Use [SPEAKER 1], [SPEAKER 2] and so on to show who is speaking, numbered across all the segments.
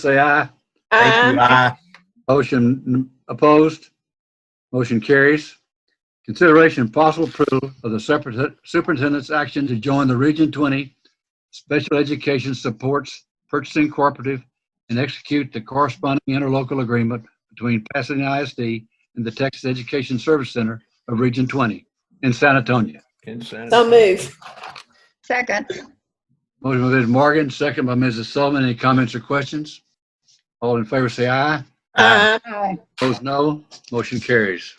[SPEAKER 1] say aye.
[SPEAKER 2] Thank you.
[SPEAKER 3] Aye.
[SPEAKER 2] Aye.
[SPEAKER 1] Motion opposed. Motion carries. Consideration and possible approval of the superintendent- superintendent's action to join the Region 20 Special Education Supports Purchasing Cooperative and execute the corresponding interlocal agreement between Pasadena ISD and the Texas Education Service Center of Region 20 in San Antonio.
[SPEAKER 3] So move.
[SPEAKER 4] Second.
[SPEAKER 1] Motion by Mrs. Morgan, second by Mrs. Sullivan. Any comments or questions? All in favor, say aye.
[SPEAKER 3] Aye.
[SPEAKER 4] Aye.
[SPEAKER 1] Opposed, no. Motion carries.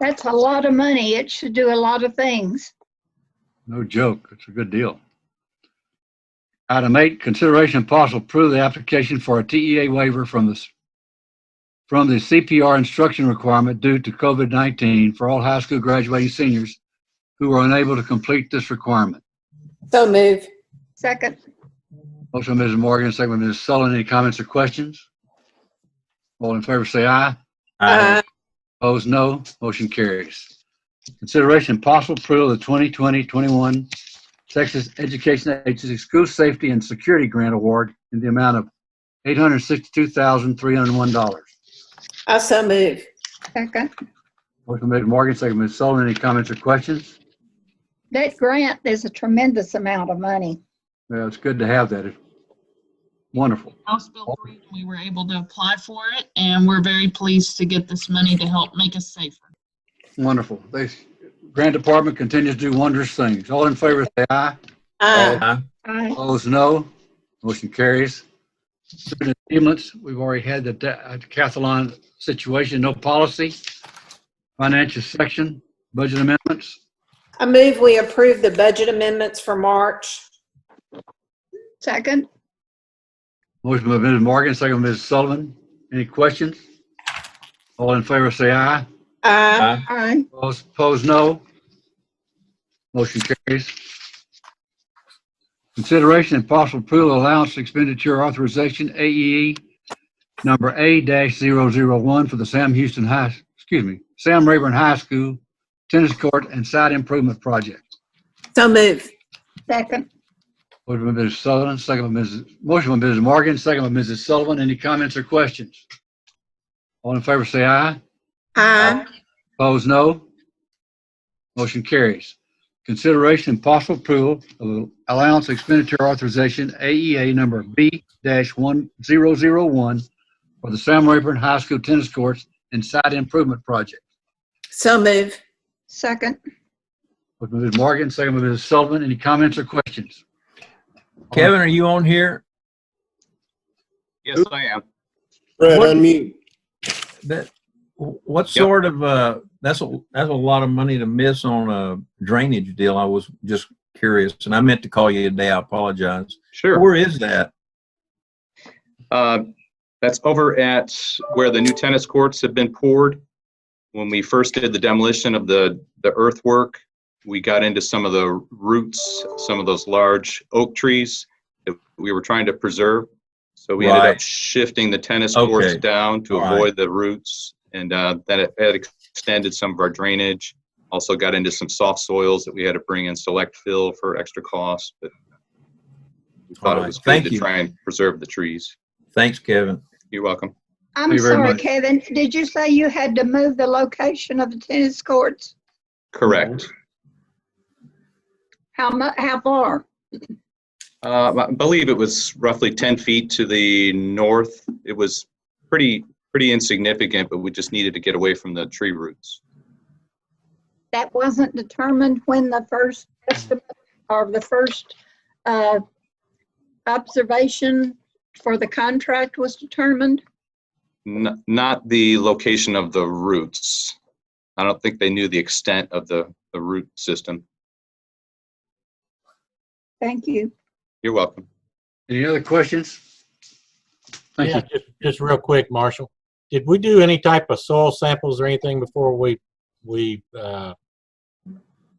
[SPEAKER 4] That's a lot of money. It should do a lot of things.
[SPEAKER 1] No joke. It's a good deal. Item eight, consideration and possible approve the application for a TEA waiver from the, from the CPR instruction requirement due to COVID-19 for all high school graduating seniors who are unable to complete this requirement.
[SPEAKER 3] So move.
[SPEAKER 4] Second.
[SPEAKER 1] Motion by Mrs. Morgan, second by Mrs. Sullivan. Any comments or questions? All in favor, say aye.
[SPEAKER 3] Uh,
[SPEAKER 2] Aye.
[SPEAKER 1] Opposed, no. Motion carries. Consideration and possible approval of the 2020-21 Texas Education Agency School Safety and Security Grant Award in the amount of $862,301.
[SPEAKER 3] I so move.
[SPEAKER 4] Second.
[SPEAKER 1] Motion made by Morgan, second by Ms. Sullivan. Any comments or questions?
[SPEAKER 4] That grant is a tremendous amount of money.
[SPEAKER 1] Well, it's good to have that. It's Wonderful.
[SPEAKER 5] House Bill 3, and we were able to apply for it, and we're very pleased to get this money to help make us safer.
[SPEAKER 1] Wonderful. They, Grant Department continues to do wondrous things. All in favor, say aye.
[SPEAKER 3] Aye.
[SPEAKER 2] Aye.
[SPEAKER 4] Aye.
[SPEAKER 1] Opposed, no. Motion carries. Student achievements, we've already had the decathlon situation, no policy. Financial section, budget amendments.
[SPEAKER 3] I move we approve the budget amendments for March.
[SPEAKER 4] Second.
[SPEAKER 1] Motion by Mrs. Morgan, second by Mrs. Sullivan. Any questions? All in favor, say aye.
[SPEAKER 3] Aye.
[SPEAKER 2] Aye.
[SPEAKER 4] Aye.
[SPEAKER 1] Opposed, opposed, no. Motion carries. Consideration and possible approval of allowance expenditure authorization, AEE, number A-001 for the Sam Houston High, excuse me, Sam Rayburn High School Tennis Court and Site Improvement Project.
[SPEAKER 3] So move.
[SPEAKER 4] Second.
[SPEAKER 1] Motion by Mrs. Sullivan, second by Mrs., motion by Mrs. Morgan, second by Mrs. Sullivan. Any comments or questions? All in favor, say aye.
[SPEAKER 3] Aye.
[SPEAKER 1] Opposed, no. Motion carries. Consideration and possible approval of allowance expenditure authorization, AEA number B-1001 for the Sam Rayburn High School Tennis Courts and Site Improvement Project.
[SPEAKER 3] So move.
[SPEAKER 4] Second.
[SPEAKER 1] With Mrs. Morgan, second by Mrs. Sullivan, any comments or questions?
[SPEAKER 2] Kevin, are you on here?
[SPEAKER 6] Yes, I am.
[SPEAKER 7] Brett,
[SPEAKER 2] What-
[SPEAKER 7] unmute.
[SPEAKER 2] That, what
[SPEAKER 6] Yep.
[SPEAKER 2] sort of, uh, that's, a that's a lot of money to miss on a drainage deal. I was just curious, and I meant to call you today. I apologize.
[SPEAKER 6] Sure.
[SPEAKER 2] Where is that?
[SPEAKER 6] Uh, That's over at where the new tennis courts have been poured. When we first did the demolition of the, the earthwork, we got into some of the roots, some of those large oak trees that we were trying to preserve. So we ended up
[SPEAKER 2] Right.
[SPEAKER 6] shifting the tennis courts
[SPEAKER 2] Okay.
[SPEAKER 6] down to
[SPEAKER 2] All right.
[SPEAKER 6] avoid the roots. And uh, then it it extended some of our drainage. Also got into some soft soils that we had to bring in select fill for extra cost, but we thought
[SPEAKER 2] All
[SPEAKER 6] it
[SPEAKER 2] right.
[SPEAKER 6] was
[SPEAKER 2] Thank
[SPEAKER 6] good to
[SPEAKER 2] you.
[SPEAKER 6] try and preserve the trees.
[SPEAKER 2] Thanks, Kevin.
[SPEAKER 6] You're welcome.
[SPEAKER 4] I'm
[SPEAKER 1] Thank you very
[SPEAKER 4] sorry,
[SPEAKER 1] much.
[SPEAKER 4] Kevin. Did you say you had to move the location of the tennis courts?
[SPEAKER 6] Correct.
[SPEAKER 4] How mu, how far?
[SPEAKER 6] Uh, I believe it was roughly 10 feet to the north. It was pretty, pretty insignificant, but we just needed to get away from the tree roots.
[SPEAKER 4] That wasn't determined when the first estimate or the first, uh, observation for the contract was determined?
[SPEAKER 6] N- Not the location of the roots. I don't think they knew the extent of the, the root system.
[SPEAKER 4] Thank you.
[SPEAKER 6] You're welcome.
[SPEAKER 1] Any other questions? Thank
[SPEAKER 8] Yeah,
[SPEAKER 1] you.
[SPEAKER 8] just, just real quick, Marshall. Did we do any type of soil samples or anything before we, we, uh,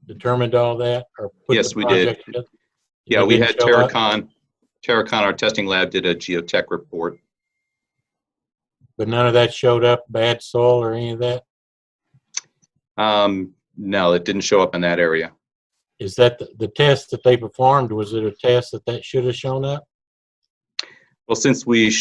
[SPEAKER 8] determined all that or? put the
[SPEAKER 6] Yes, we did.
[SPEAKER 8] project together?
[SPEAKER 6] Yeah,
[SPEAKER 8] They
[SPEAKER 6] we
[SPEAKER 8] didn't
[SPEAKER 6] had
[SPEAKER 8] show up,
[SPEAKER 6] Terracon, Terracon, our testing lab did a geotech report.
[SPEAKER 8] But none of that showed up, bad soil or any of that?
[SPEAKER 6] Um, No, it didn't show up in that area.
[SPEAKER 8] Is that the, the test that they performed, was it a test that that should have shown up?
[SPEAKER 6] Well, since we